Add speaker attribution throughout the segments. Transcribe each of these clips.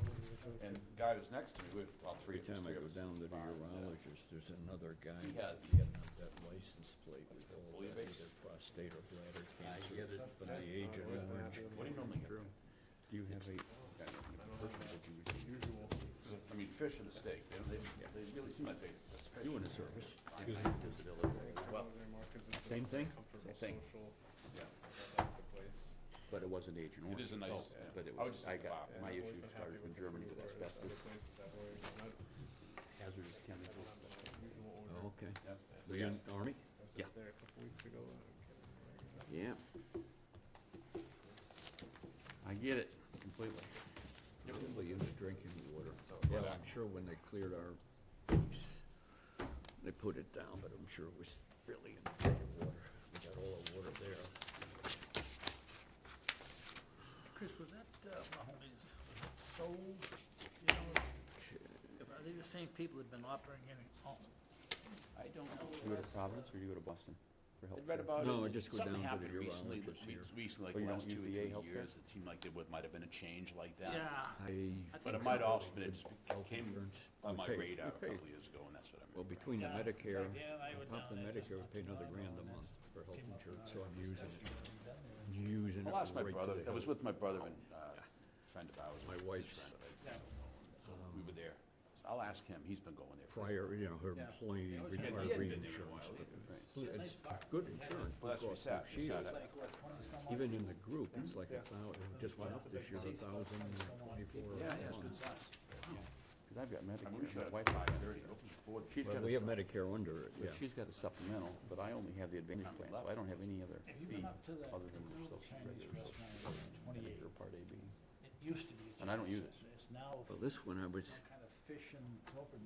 Speaker 1: and the guy who's next to me, we have about three
Speaker 2: Every
Speaker 1: of
Speaker 2: time
Speaker 1: us.
Speaker 2: I
Speaker 1: three
Speaker 2: go
Speaker 1: of us
Speaker 2: down to the
Speaker 1: combined, uh,
Speaker 2: urologist, there's another guy
Speaker 1: He
Speaker 2: that
Speaker 1: had-
Speaker 2: getting up that license plate with all
Speaker 1: Believe
Speaker 2: that
Speaker 1: it.
Speaker 2: either prostate or bladder
Speaker 3: I
Speaker 2: cancer.
Speaker 3: get it.
Speaker 2: From the age of orange.
Speaker 1: What do you normally get?
Speaker 2: True. Do you have a,
Speaker 1: Yeah, personally, what you would do. I mean, fish and a steak, they, they, they really seem like they. that's fish.
Speaker 2: you in the service?
Speaker 1: I have a disability as well.
Speaker 2: Same thing?
Speaker 1: Same thing. Yeah.
Speaker 3: Uh,
Speaker 4: But it wasn't Agent Orange.
Speaker 1: It is a nice,
Speaker 4: Oh,
Speaker 1: yeah.
Speaker 4: But it
Speaker 1: I would
Speaker 4: was,
Speaker 1: just
Speaker 4: I
Speaker 1: like the
Speaker 4: got,
Speaker 1: Bob.
Speaker 4: my issue started from Germany with asbestos, hazardous chemicals.
Speaker 2: Oh, okay.
Speaker 1: Yep.
Speaker 2: Were you in the Army?
Speaker 4: Yeah.
Speaker 3: There a couple weeks ago. and I'm kidding.
Speaker 2: Yeah. I get it completely. Probably in the drinking water.
Speaker 1: So,
Speaker 2: Yeah,
Speaker 1: but, uh,
Speaker 2: I'm sure when they cleared our beach, they put it down, but I'm sure it was really in the drinking water. We got all the water there.
Speaker 5: Oh, Chris, was that uh, Mahoney's, was that sold, you know, if- are they the same people that have been operating it on?
Speaker 1: I don't
Speaker 4: You
Speaker 1: know.
Speaker 4: go to Providence or you go to Boston for
Speaker 1: I
Speaker 4: health?
Speaker 1: read
Speaker 4: care?
Speaker 1: about it.
Speaker 2: No, I
Speaker 1: and
Speaker 2: just go down to the
Speaker 1: Something happened
Speaker 2: urologist
Speaker 1: recently,
Speaker 2: here.
Speaker 1: that- re- recently,
Speaker 4: Oh, you
Speaker 1: like the
Speaker 4: don't
Speaker 1: last two or
Speaker 4: use VA
Speaker 1: three
Speaker 4: healthcare?
Speaker 1: years, it seemed like there would- might have been a change like that.
Speaker 5: Yeah.
Speaker 2: I,
Speaker 5: I
Speaker 1: But
Speaker 5: think
Speaker 1: it might
Speaker 5: so.
Speaker 1: also been, it just
Speaker 2: Health
Speaker 1: came
Speaker 2: insurance.
Speaker 1: on
Speaker 2: We
Speaker 1: my
Speaker 2: paid- we
Speaker 1: radar a couple
Speaker 2: paid.
Speaker 1: of years ago, and that's what I
Speaker 2: well,
Speaker 1: remember.
Speaker 2: between the
Speaker 5: Yeah, in fact,
Speaker 2: Medicare,
Speaker 5: yeah, I
Speaker 2: on
Speaker 5: was
Speaker 2: top of the
Speaker 5: down there just
Speaker 2: Medicare, we
Speaker 5: not
Speaker 2: pay
Speaker 5: too
Speaker 2: another
Speaker 5: long
Speaker 2: grand
Speaker 5: ago,
Speaker 2: a
Speaker 5: and
Speaker 2: month for health
Speaker 5: came up with
Speaker 2: insurance,
Speaker 5: a
Speaker 2: so I'm using
Speaker 5: discussion
Speaker 2: it,
Speaker 5: when we done there.
Speaker 2: using it
Speaker 1: I
Speaker 2: right
Speaker 1: lost
Speaker 2: to the
Speaker 1: my brother, I was
Speaker 2: health.
Speaker 1: with my brother and, uh, friend of ours.
Speaker 2: My
Speaker 1: his
Speaker 2: wife's, um,
Speaker 1: friend of ours. So We were there. So I'll ask him, he's been going there. for-
Speaker 2: Prior, you know, her
Speaker 5: Yeah.
Speaker 2: employee
Speaker 5: Yeah, he
Speaker 2: required
Speaker 1: Yeah, he hadn't been there in a
Speaker 2: reinsurance,
Speaker 1: while
Speaker 2: but
Speaker 1: either, right.
Speaker 2: Well,
Speaker 5: Yeah,
Speaker 2: It's
Speaker 5: nice park.
Speaker 2: good insurance,
Speaker 1: Well, that's what we
Speaker 2: because of
Speaker 1: sat- we sat
Speaker 2: shield.
Speaker 1: at.
Speaker 5: Like, what, twenty some odd?
Speaker 2: Even in the group, it's like
Speaker 3: Yeah.
Speaker 2: a thousand, it just went up this year, a thousand and twenty-four.
Speaker 1: Yeah,
Speaker 2: a
Speaker 1: yeah, it's good
Speaker 2: month.
Speaker 1: size.
Speaker 4: Cause I've got
Speaker 1: I mean, we
Speaker 4: Medicare,
Speaker 1: should
Speaker 4: my
Speaker 1: have
Speaker 4: wife,
Speaker 1: five thirty, open the board.
Speaker 4: she's got
Speaker 2: But
Speaker 4: a.
Speaker 2: we have
Speaker 4: sup-
Speaker 2: Medicare under it,
Speaker 4: But
Speaker 2: yeah.
Speaker 4: she's got a supplemental, but I only have the Advantage plan, so I don't have any other
Speaker 5: Have you
Speaker 4: fee
Speaker 5: been up to the
Speaker 4: other than the
Speaker 5: little
Speaker 4: social,
Speaker 5: Chinese
Speaker 4: regular
Speaker 5: restaurant in
Speaker 4: social,
Speaker 5: twenty-eight?
Speaker 4: Medicare Part A, B.
Speaker 5: It used to be. a
Speaker 4: And I don't use
Speaker 5: Chinese
Speaker 4: it.
Speaker 5: restaurant. It's now
Speaker 2: Well, this one I was
Speaker 5: some kind of fish and open.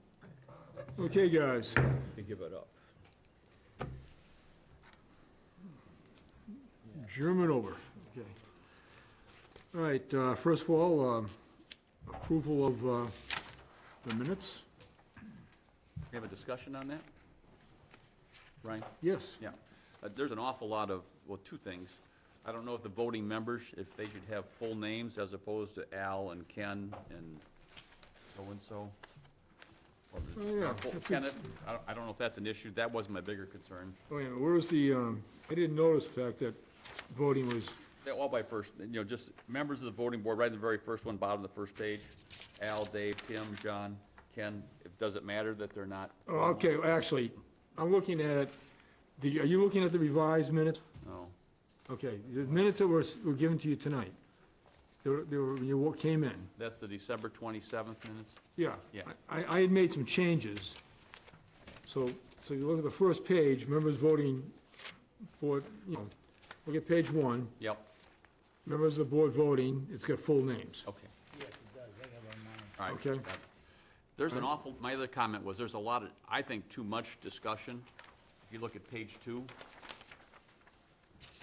Speaker 6: Okay, guys,
Speaker 2: to give it up.
Speaker 6: German over, okay. All right, uh, first of all, um, approval of uh, the minutes?
Speaker 4: We have a discussion on that? Ryan?
Speaker 6: Yes.
Speaker 4: Yeah, Uh, there's an awful lot of, well, two things. I don't know if the voting members, if they should have full names as opposed to Al and Ken and so-and-so. Or
Speaker 6: Oh, yeah,
Speaker 4: or full-
Speaker 6: that's a-
Speaker 4: Kenneth, I don't, I don't know if that's an issue, that was my bigger concern.
Speaker 6: Oh, yeah, where was the, um, I didn't notice the fact that voting was,
Speaker 4: They're all by first, you know, just members of the voting board, right in the very first one, bottom of the first page. Al, Dave, Tim, John, Ken, If does it matter that they're not?
Speaker 6: oh, okay, actually, I'm looking at it, the, are you looking at the revised minutes?
Speaker 4: No,
Speaker 6: Okay, the minutes that were, s- were given to you tonight, they were, they were, when you wa- came in,
Speaker 4: that's the December twenty-seventh minutes?
Speaker 6: yeah.
Speaker 4: Yeah.
Speaker 6: I, I had made some changes. So, so you look at the first page, members voting for, you know, look at page one,
Speaker 4: Yep,
Speaker 6: members of the board voting, it's got full names.
Speaker 4: okay.
Speaker 5: Yes, it does. I have it on mine.
Speaker 4: All right.
Speaker 6: Okay.
Speaker 4: that- There's an awful, my other comment was, there's a lot of, I think, too much discussion. If you look at page two,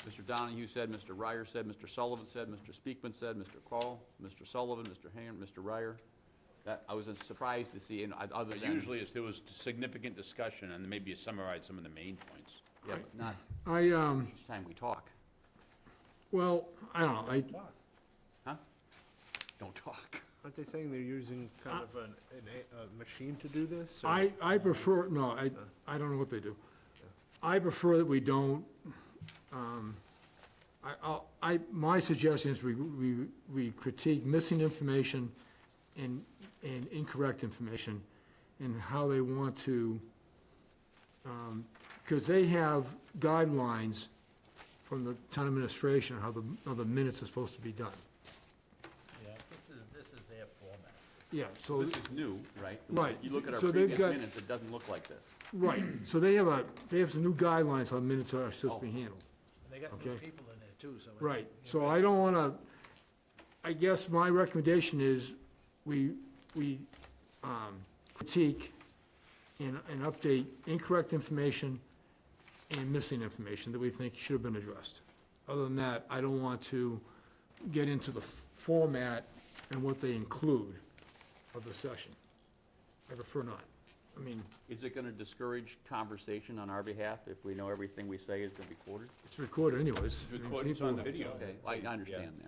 Speaker 4: Mr. Donahue said, Mr. Ryer said, Mr. Sullivan said, Mr. Speakman said, Mr. Call, Mr. Sullivan, Mr. Hand, Mr. Ryer. That, I was surprised to see, and I- other
Speaker 1: But
Speaker 4: than.
Speaker 1: Usually, it's- there was significant discussion, and maybe you summarized some of the main points.
Speaker 4: Yeah, but not
Speaker 6: I, um,
Speaker 4: each time we talk,
Speaker 6: well, I don't know, I,
Speaker 4: huh? Don't talk.
Speaker 3: Aren't they saying they're using kind of an, an, a- a machine to do this? or-
Speaker 6: I, I prefer, no, I, I don't know what they do. I prefer that we don't, um, I, I'll- I, my suggestion is we, we, we critique missing information and, and incorrect information and how they want to, because they have guidelines from the town administration, how the, how the minutes are supposed to be done.
Speaker 5: Yeah, this is, this is their format.
Speaker 6: Yeah, so.
Speaker 4: This is new, right?
Speaker 6: Right,
Speaker 4: You look at our
Speaker 6: so they've
Speaker 4: previous
Speaker 6: got-
Speaker 4: minutes, it doesn't look like this.
Speaker 6: Right, so they have a, they have some new guidelines on minutes are supposed to be handled.
Speaker 5: And They got new
Speaker 6: Okay.
Speaker 5: people in there too, so. it-
Speaker 6: Right, so I don't wanna, I guess my recommendation is we, we um, critique and, and update incorrect information and missing information that we think should have been addressed. Other than that, I don't want to get into the f- format and what they include of the session. I prefer not. I mean,
Speaker 4: Is it gonna discourage conversation on our behalf if we know everything we say is gonna be recorded?
Speaker 6: it's recorded anyways. I mean,
Speaker 1: Recordings on
Speaker 6: people-
Speaker 1: the video.
Speaker 4: Okay, I I understand that.